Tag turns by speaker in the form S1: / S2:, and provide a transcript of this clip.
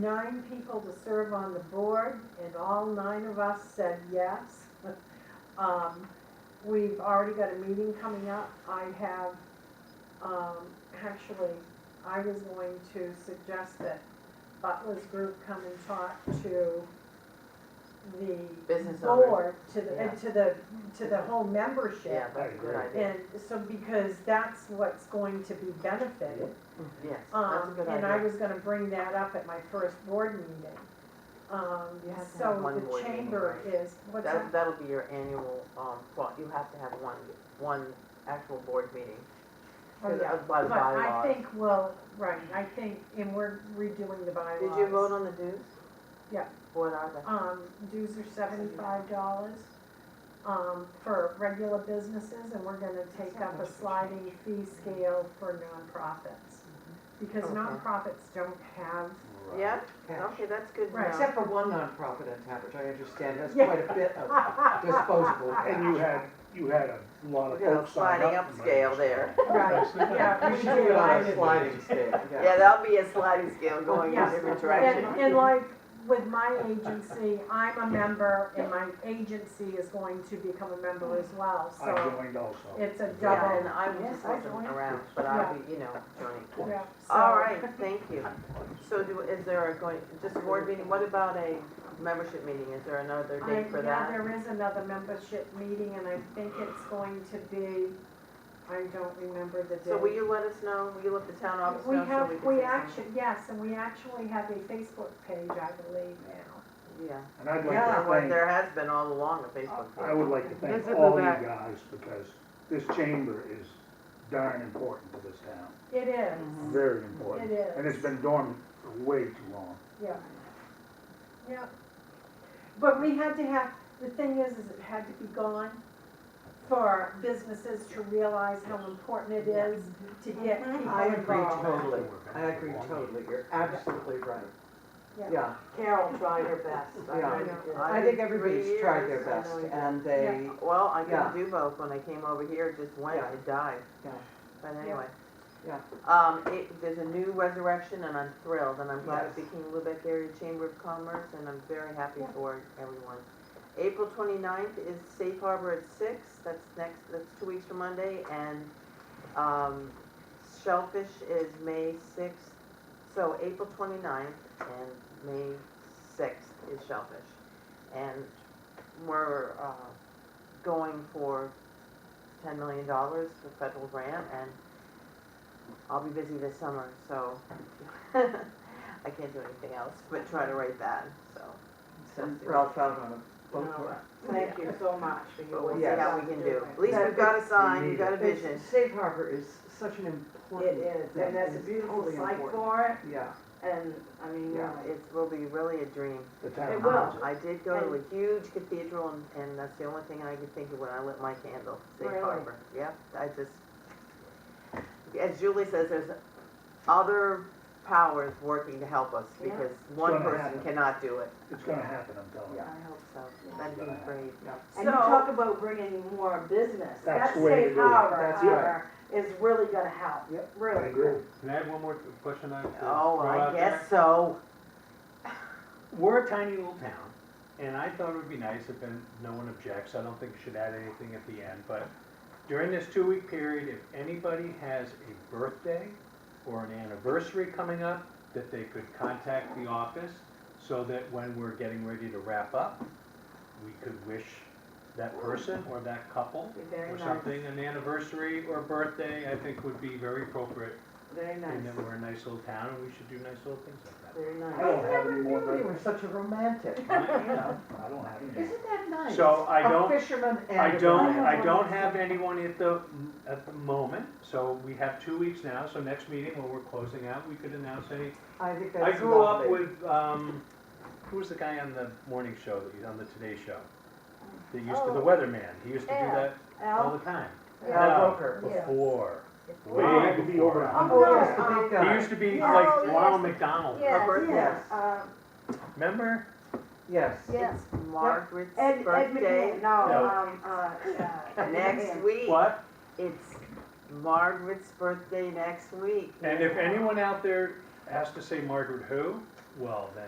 S1: nine people to serve on the board, and all nine of us said yes. Um, We've already got a meeting coming up. I have, um, actually, I was going to suggest that Butler's group come and talk to the
S2: Business owner,
S1: board, to the,
S2: Yeah.
S1: and to the, to the whole
S2: yeah,
S1: membership.
S2: that's a good idea,
S1: And so, because that's what's going to be benefited.
S2: Mm, yes, that's a
S1: Um,
S2: good
S1: and I
S2: idea.
S1: was gonna bring that up at my first board meeting. Um,
S2: You have to have one
S1: so the
S2: board meeting,
S1: chamber
S2: right?
S1: is, what's
S2: That,
S1: that?
S2: that'll be your annual, um, thought, you have to have one, one actual board meeting,
S1: Oh,
S2: because
S1: yeah.
S2: of by
S1: But I
S2: bylaw.
S1: think, well, right, I think, and we're redoing the bylaws.
S2: Did you vote on the dues?
S1: Yeah.
S2: What are they?
S1: Um, dues are seventy-five dollars, um, for regular businesses, and we're gonna take up a sliding fee scale for nonprofits. Because
S2: Okay.
S1: nonprofits don't have,
S2: Yeah,
S3: Yeah.
S2: okay, that's good to
S1: Right.
S2: know.
S3: Except for one nonprofit in town, which I understand has
S1: Yeah.
S3: quite a bit of disposable
S4: And
S3: cash.
S4: you had, you had a lot of
S2: We got a
S4: folks sign
S2: sliding
S4: up. for
S2: upscale
S4: those.
S2: there.
S1: right, yeah,
S3: You
S1: we
S3: should
S1: do,
S3: do it
S1: I
S3: on a
S1: did.
S3: sliding scale,
S2: Yeah,
S3: yeah.
S2: that'll be a sliding scale going in
S1: Yeah.
S2: different
S1: And,
S2: directions.
S1: and like, with my agency, I'm a member, and my agency is going to become a member as well,
S4: I
S1: so
S4: joined also.
S1: it's a
S2: Yeah,
S1: double.
S2: and I
S3: Yes,
S2: was just
S3: I
S2: wasn't
S3: joined.
S2: around, but I'll be, you know, joining.
S1: Yeah, so-
S2: All right, thank you. So do, is there a going, just a board meeting, what about a membership meeting? Is there another
S1: I-
S2: date for that?
S1: Yeah, there is another membership meeting, and I think it's going to be, I don't remember the date.
S2: So will you let us know, will you let the town office
S1: We
S2: know so
S1: have,
S2: we can
S1: we
S2: say something?
S1: actually, yes, and we actually have a Facebook page, I believe, now.
S2: Yeah,
S4: And I'd like
S3: Yeah,
S4: to
S2: Well,
S4: thank,
S2: there has been all along a Facebook
S4: I
S2: group.
S4: would like to
S5: This is
S4: thank
S5: the
S4: all you
S5: back.
S4: guys because this chamber is darn important to this town,
S1: It
S2: Mm-hmm.
S1: is,
S4: very
S1: it
S4: important.
S1: is.
S4: And it's been dormant for way too long.
S1: Yeah. Yeah. But we had to have, the thing is, is it had to be gone for businesses to realize how important it is to get people
S3: I agree
S1: involved.
S3: totally, I agree totally, you're absolutely right.
S1: Yeah.
S3: Yeah,
S6: Carol tried her best. I
S3: Yeah.
S6: really did.
S3: I think everybody's tried their
S2: Three years, I know
S3: best
S2: you did.
S3: and they,
S2: Well, I
S3: Yeah.
S2: couldn't do both, when I came over here, it just went,
S3: Yeah.
S2: it died.
S3: Yeah.
S2: But anyway.
S3: Yeah.
S2: Um, it, there's a new resurrection and I'm thrilled, and I'm glad it's the
S3: Yes.
S2: King Lubec Area Chamber of Commerce, and I'm very happy
S1: Yeah.
S2: for everyone. April 29th is Safe Harbor at six, that's next, that's two weeks from Monday, and, um, Shellfish is May sixth, so April 29th and May sixth is Shellfish. And we're, uh, going for ten million dollars for federal grant, and I'll be busy this summer, so I can't do anything else but try to write that, so.
S3: sent Ralph out on a boat tour.
S6: Thank you so much for your.
S2: But we'll see
S3: Yes.
S2: how we can do. At least we've got a sign, we've got a vision.
S3: Safe harbor is such an important
S6: It
S3: thing.
S6: is, and that's a
S3: It's
S6: beautiful
S3: totally
S6: site
S3: important.
S6: for
S3: Yeah,
S6: it, and, I mean,
S3: Yeah.
S6: really,
S2: It will be really a dream. Um,
S4: The town
S6: It will.
S4: loves it.
S2: I did go to a huge cathedral, and, and that's the only thing I could think of when I lit my candle, Safe
S6: Really?
S2: Harbor. Yeah, I just, as Julie says, there's other powers working to help us,
S6: Yeah.
S2: because one
S4: gonna
S2: person
S4: happen.
S2: cannot do it.
S4: It's gonna happen, I'm telling you.
S2: I hope so.
S4: Yeah.
S2: That'd be great.
S3: yeah.
S6: and you
S2: So-
S6: talk about bringing more business.
S4: That's
S6: That
S4: the way to
S6: safe
S4: do it.
S6: harbor,
S3: That's right.
S6: harbor is really gonna help,
S4: Yep. I
S6: really.
S4: agree.
S5: Can I add one more question I? to
S2: Oh,
S5: throw
S2: I
S5: out there?
S2: guess so.
S5: We're a tiny little town, and I thought it would be nice if then no one objects, I don't think you should add anything at the end, but during this two-week period, if anybody has a birthday or an anniversary coming up, that they could contact the office, so that when we're getting ready to wrap up, we could wish that person or that couple
S6: Be Very
S5: or
S6: nice,
S5: something, an anniversary or birthday, I think would be very appropriate,
S6: very
S5: and
S6: nice,
S5: that we're a nice little town, and we should do nice little things like
S6: very
S4: I
S6: nice.
S4: don't
S3: I
S4: have any
S3: never
S4: more,
S3: knew you
S4: birth-
S3: were such a romantic.
S5: that.
S3: Yeah.
S4: I don't have any.
S3: Isn't that nice?
S5: So I don't-
S3: A fisherman and uh,
S5: I
S3: a
S5: don't,
S3: guy.
S5: I don't have anyone at the, at the moment, so we have two weeks now, so next meeting when we're closing out, we could announce any.
S3: I think
S5: I
S3: that's
S5: grew up
S3: lovely.
S5: with, um, who was the guy on the morning show, that was on the Today Show? That used to, the
S6: Oh.
S5: weatherman, he used to do
S6: Al.
S5: that all
S6: Al,
S5: the time.
S3: Al
S5: No,
S3: Roker.
S6: Yes.
S5: Before,
S4: Well, you had
S5: way
S4: to be over a
S5: before.
S4: hundred.
S3: Oh, yes, the big
S5: He
S3: guy.
S5: used to be
S6: Oh,
S5: like
S6: yes.
S5: Ronald McDonald,
S6: yes,
S2: Robert,
S6: yes,
S3: yes.
S6: uh,
S5: remember?
S3: Yes.
S6: yes,
S2: It's Margaret's
S6: Ed, Ed
S2: birthday
S6: McMahon, no,
S5: No.
S6: um, uh, uh, Ed
S2: next
S6: McMahon.
S2: week.
S5: What?
S2: It's Margaret's birthday next week.
S5: And if anyone out there has to say Margaret who, well, then